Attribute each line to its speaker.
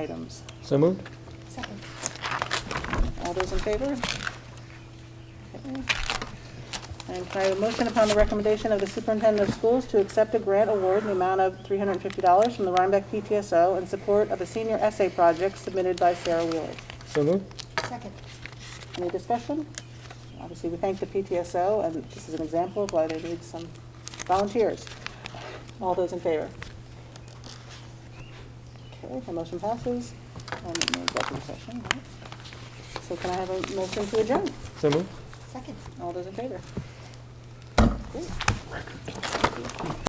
Speaker 1: items.
Speaker 2: So moved?
Speaker 3: Second.
Speaker 1: All those in favor? Okay. And can I have a motion upon the recommendation of the superintendent of schools to accept a grant award in the amount of $350 from the Rhinebeck PTSO in support of a senior essay project submitted by Sarah Wheeler?
Speaker 2: So moved?
Speaker 3: Second.
Speaker 1: Any discussion? Obviously, we thank the PTSO, and this is an example of why they need some volunteers. All those in favor? Okay, the motion passes, and no executive session, right? So can I have a motion to adjourn?
Speaker 2: So moved?
Speaker 3: Second.
Speaker 1: All those in favor? Great.